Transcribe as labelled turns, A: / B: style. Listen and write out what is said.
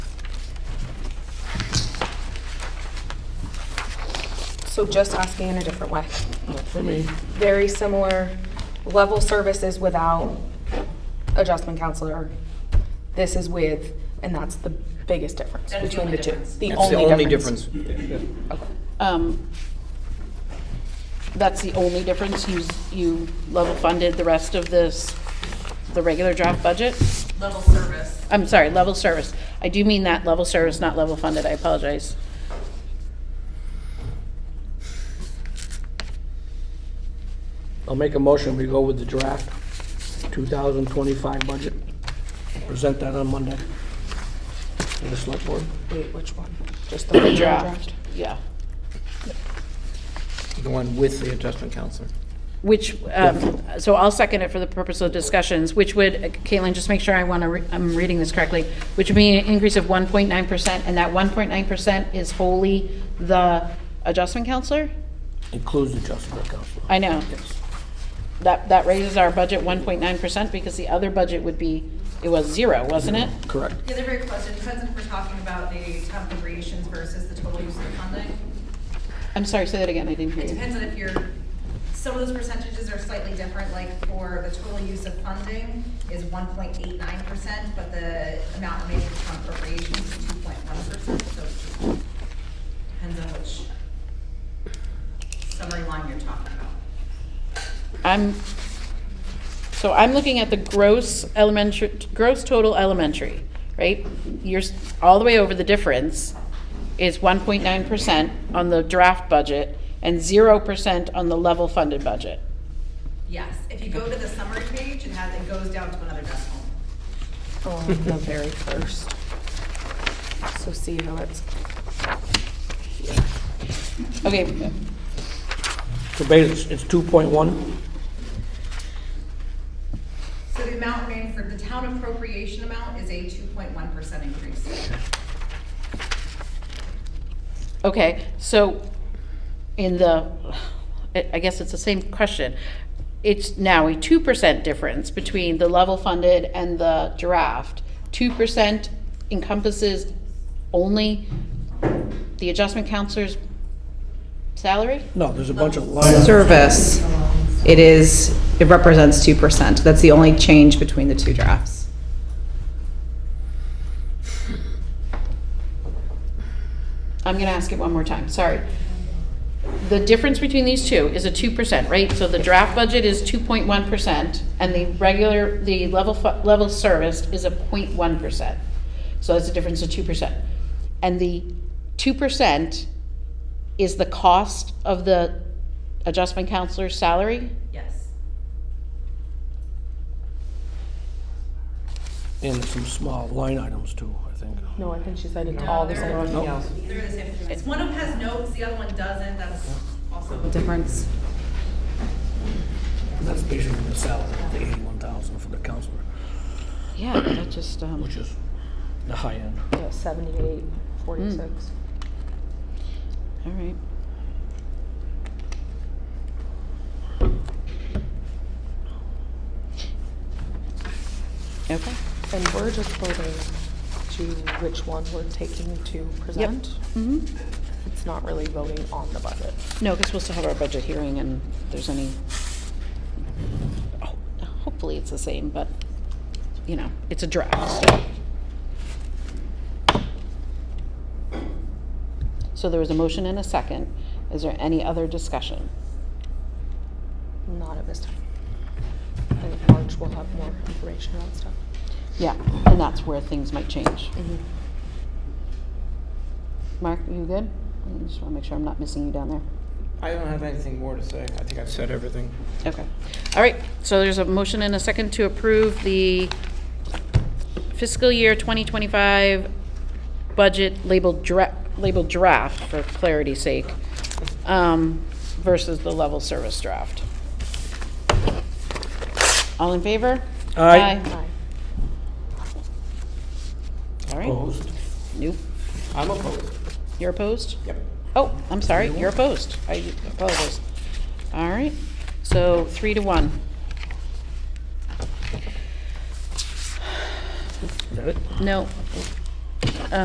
A: So just asking in a different way.
B: Not for me.
A: Very similar level services without adjustment counselor. This is with, and that's the biggest difference
C: That's the
A: between
C: only
A: the two.
C: difference.
B: That's the only difference.
D: Um, That's the only difference, you, you level funded the rest of this, the regular draft budget?
C: level service.
D: I'm sorry, level service. I do mean that, level service, not level funded, I apologize.
B: I'll make a motion, we go with the draft 2025 budget. Present that on Monday to the select board.
A: Wait, which one? Just the original draft?
D: Yeah.
B: The one with the adjustment counselor.
D: Which, um, so I'll second it for the purpose of discussions, which would, Caitlin, just make sure I want to, I'm reading this correctly, which would be an increase of 1.9%, and that 1.9% is wholly the adjustment counselor?
B: Includes the adjustment counselor.
D: I know. That, that raises our budget 1.9% because the other budget would be, it was zero, wasn't it?
B: Correct.
C: The other big question, depends if we're talking about the town appropriations versus the total use of the funding.
D: I'm sorry, say that again, I didn't hear
C: It
D: you.
C: depends on if you're, some of those percentages are slightly different, like for the total use of funding is one point eight nine percent, but the amount made from appropriations is two point one percent, so it depends on which summary line you're talking about.
D: I'm, so I'm looking at the gross elementary, gross total elementary, right? You're, s- all the way over, the difference is 1.9% on the draft budget and 0% on the level funded budget.
C: Yes, if you go to the summary page, it has, it goes down to another decimal.
A: Oh, On the very first. So see how it's,
D: Okay,
B: So basically, it's 2.1,
C: So the amount remaining for the town appropriation amount is a two point one percent increase.
D: Okay, so in the, I I guess it's the same question. It's now a two percent difference between the level funded and the draft. Two percent encompasses only the adjustment counselor's salary?
B: no, there's a bunch of lines.
E: service, it is, it represents 2%. That's the only change between the two drafts.
D: I'm gonna ask it one more time, sorry. The difference between these two is a two percent, right? So the draft budget is two point one percent, and the regular, the level, fu- level serviced is a 0.1 percent. So that's a difference of two percent. And the two percent is the cost of the adjustment counselor's salary?
C: Yes.
B: And some small line items too, I think.
A: no, oh, I think she said it's
C: No,
A: all the
C: they're-
A: same.
B: No.
C: They're the same. It's one of them has notes, the other one doesn't, that's also.
E: Difference.
B: That's basically the salary, the 81,000 for the counselor,
D: Yeah, that just, um,
B: which is the high end.
A: Yeah, Seventy-eight,
B: Hmm.
A: forty-six.
D: all right. Okay.
A: And we're just voting to which one we're taking to present.
D: Mm-hmm.
A: It's not really voting on the budget.
D: No, because we'll still have our budget hearing and if there's any, ho- hopefully it's the same, but, you know, it's a draft. so. So there was a motion and a second. Is there any other discussion?
A: Not at this time. I think March we'll have more information on stuff.
D: Yeah, and that's where things might change. Mark, you good? I just want to make sure I'm not missing you down there.
F: I don't have anything more to say. I think I've said everything.
D: Okay. All right, so there's a motion and a second to approve the fiscal year 2025 budget labeled dra, labeled draft for clarity's sake, um, versus the level service draft. All in favor?
B: Aye.
A: Aye.
D: All right,
B: Opposed?
D: nope.
F: I'm opposed.
D: You're opposed?
F: Yep.
D: Oh, I'm sorry, you're opposed. I apologize. All right, so three to one.
B: Is that it?
D: No,